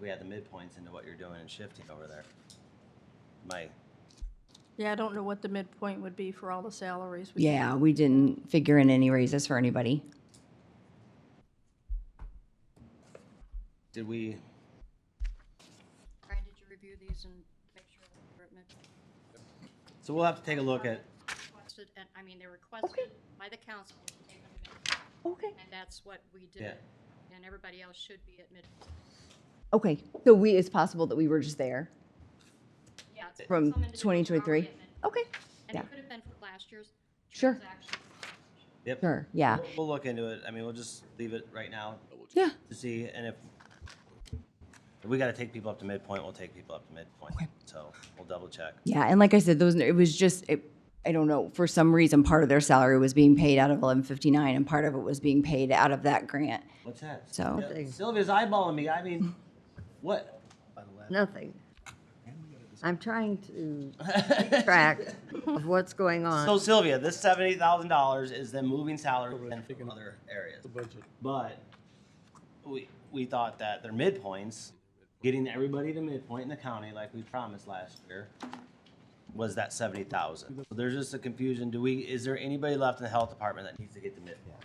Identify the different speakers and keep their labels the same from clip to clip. Speaker 1: we add the midpoints into what you're doing and shifting over there. My,
Speaker 2: Yeah, I don't know what the midpoint would be for all the salaries. We-
Speaker 3: Yeah, we didn't figure in any raises for anybody.
Speaker 1: did we,
Speaker 4: Brian, did you review these and make sure they're
Speaker 1: so we'll have to take a look at,
Speaker 4: requested, and, I mean, they're requested by the council to take them to midpoint,
Speaker 3: Okay.
Speaker 4: and that's what we
Speaker 1: Yeah.
Speaker 4: did. And everybody else should be at mid,
Speaker 3: Okay, so we, it's possible that we were just there
Speaker 4: yeah.
Speaker 3: from
Speaker 4: it's- some individuals are already
Speaker 3: 2023?
Speaker 4: at midpoint.
Speaker 3: Okay,
Speaker 4: And
Speaker 3: yeah.
Speaker 4: it could have been for last year's
Speaker 3: Sure.
Speaker 4: transaction.
Speaker 1: yep.
Speaker 3: sure, yeah,
Speaker 1: We'll- We'll look into it. I mean, we'll just leave it right now
Speaker 3: yeah.
Speaker 1: to see, and if, if we gotta take people up to midpoint, we'll take people up to midpoint. So we'll double check.
Speaker 3: Yeah, and like I said, those, it was just, it, I don't know, for some reason, part of their salary was being paid out of eleven fifty-nine and part of it was being paid out of that grant.
Speaker 1: What's that?
Speaker 3: So-
Speaker 1: Yeah, Sylvia's eyeballing me. I mean, what?
Speaker 5: Nothing. I'm trying to keep track of what's going
Speaker 1: So
Speaker 5: on.
Speaker 1: Sylvia, this seventy thousand dollars is them moving salary within from other areas. But we, we thought that their midpoints, getting everybody to midpoint in the county like we promised last year, was that seventy thousand. So there's just a confusion. Do we, is there anybody left in the health department that needs to get the midpoint?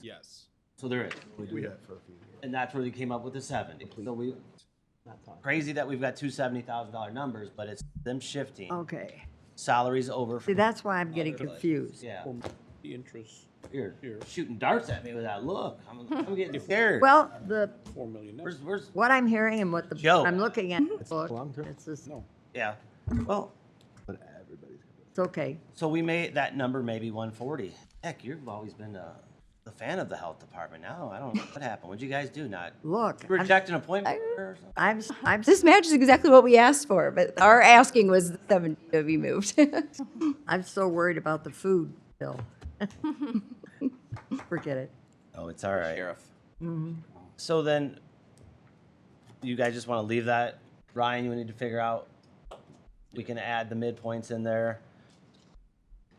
Speaker 6: Yes.
Speaker 1: So there is.
Speaker 7: We had for a few years.
Speaker 1: And that's where they came up with the seventy. So we, crazy that we've got two seventy thousand dollar numbers, but it's them shifting
Speaker 5: Okay.
Speaker 1: salaries over.
Speaker 5: Oh. See,
Speaker 1: from
Speaker 5: that's why I'm getting confused.
Speaker 1: Yeah.
Speaker 6: The interest,
Speaker 1: You're
Speaker 6: Here.
Speaker 1: shooting darts at me with that look. I'm, I'm getting scared.
Speaker 5: Well, the,
Speaker 6: four million. net.
Speaker 1: where's, where's,
Speaker 5: what I'm hearing and what the,
Speaker 1: Joe.
Speaker 5: I'm looking at, the book,
Speaker 7: long-term.
Speaker 5: it's just,
Speaker 6: No,
Speaker 1: yeah. Well,
Speaker 7: But everybody's got
Speaker 5: it's okay.
Speaker 1: so we may, that number may be 140. Heck, you've always been a, a fan of the health department now. I don't know what happened. What'd you guys do? Not
Speaker 5: Look, I'm-
Speaker 1: reject an appointment or something?
Speaker 5: I'm, I'm,
Speaker 3: This match is exactly what we asked for, but our asking was seventy to be moved.
Speaker 5: I'm so worried about the food bill. Forget it.
Speaker 1: Oh, it's all right. Sheriff.
Speaker 5: Mm-hmm.
Speaker 1: So then, you guys just want to leave that? Ryan, you need to figure out, we can add the midpoints in there.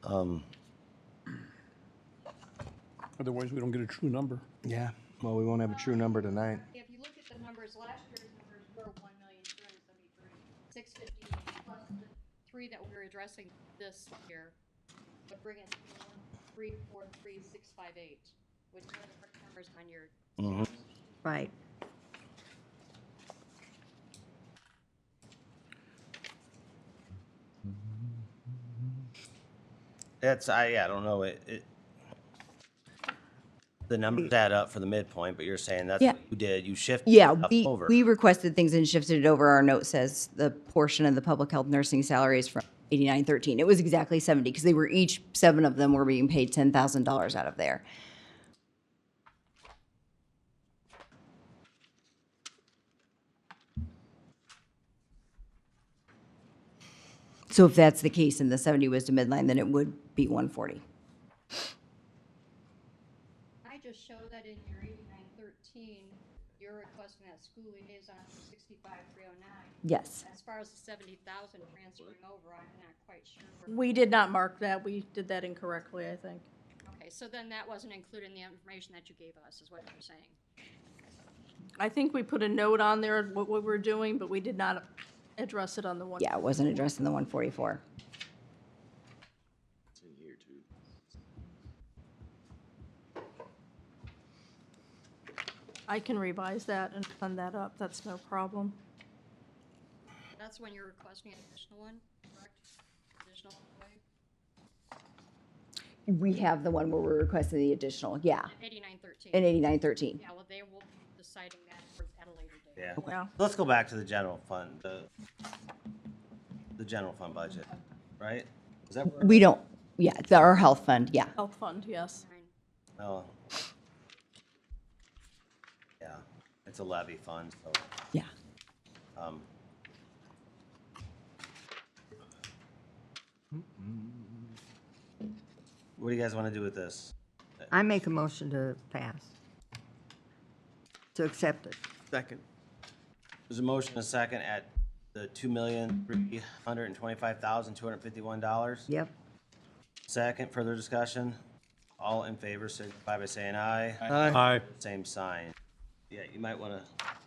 Speaker 1: Um,
Speaker 6: otherwise we don't get a true number.
Speaker 7: Yeah, well, we won't have a true number tonight.
Speaker 4: If you look at the numbers, last year's numbers were one million, two hundred seventy-three, six fifty, plus the three that we're addressing this year, would bring it to one, three, four, three, six, five, eight, which are the correct numbers on your
Speaker 5: Right.
Speaker 1: That's I yeah, I don't know it. it the numbers add up for the midpoint, but you're saying that's
Speaker 3: Yeah.
Speaker 1: what you did. You shifted
Speaker 3: Yeah,
Speaker 1: stuff
Speaker 3: we,
Speaker 1: over.
Speaker 3: we requested things and shifted it over. Our note says the portion of the public health nursing salaries from eighty-nine thirteen. It was exactly seventy because they were each, seven of them were being paid ten thousand dollars out of there. So if that's the case and the seventy was to midline, then it would be one forty.
Speaker 4: I just show that in your eighty-nine thirteen, you're requesting that school liaison for sixty-five, three oh nine.
Speaker 3: Yes.
Speaker 4: As far as the seventy thousand transferring over, I'm not quite sure. where-
Speaker 2: We did not mark that. We did that incorrectly, I think.
Speaker 4: Okay, so then that wasn't included in the information that you gave us, is what you're saying?
Speaker 2: I think we put a note on there of what we were doing, but we did not address it on the one.
Speaker 3: Yeah, it wasn't addressed in the one forty-four.
Speaker 2: I can revise that and send that up. That's no problem.
Speaker 4: That's when you're requesting an additional one, correct? Additional employee?
Speaker 3: We have the one where we're requesting the additional, yeah,
Speaker 4: Eighty-nine thirteen.
Speaker 3: in eighty-nine thirteen.
Speaker 4: Yeah, well, they will be deciding that for- at a later date.
Speaker 1: yeah.
Speaker 2: Yeah.
Speaker 1: Let's go back to the general fund, the the general fund budget, right? Is that where,
Speaker 3: We don't, yeah, it's our health fund, yeah.
Speaker 2: Health fund, yes.
Speaker 4: Fine.
Speaker 1: oh. Yeah, it's a levy fund, so
Speaker 3: Yeah.
Speaker 1: um, what do you guys want to do with this?
Speaker 5: I make a motion to pass. To accept it.
Speaker 1: Second. There's a motion, and a second at the two million, three hundred and twenty-five thousand, two hundred and fifty-one dollars.
Speaker 5: Yep.
Speaker 1: Second, further discussion? All in favor, signify by saying aye.
Speaker 6: Aye.
Speaker 1: Same sign. Yeah, you might want to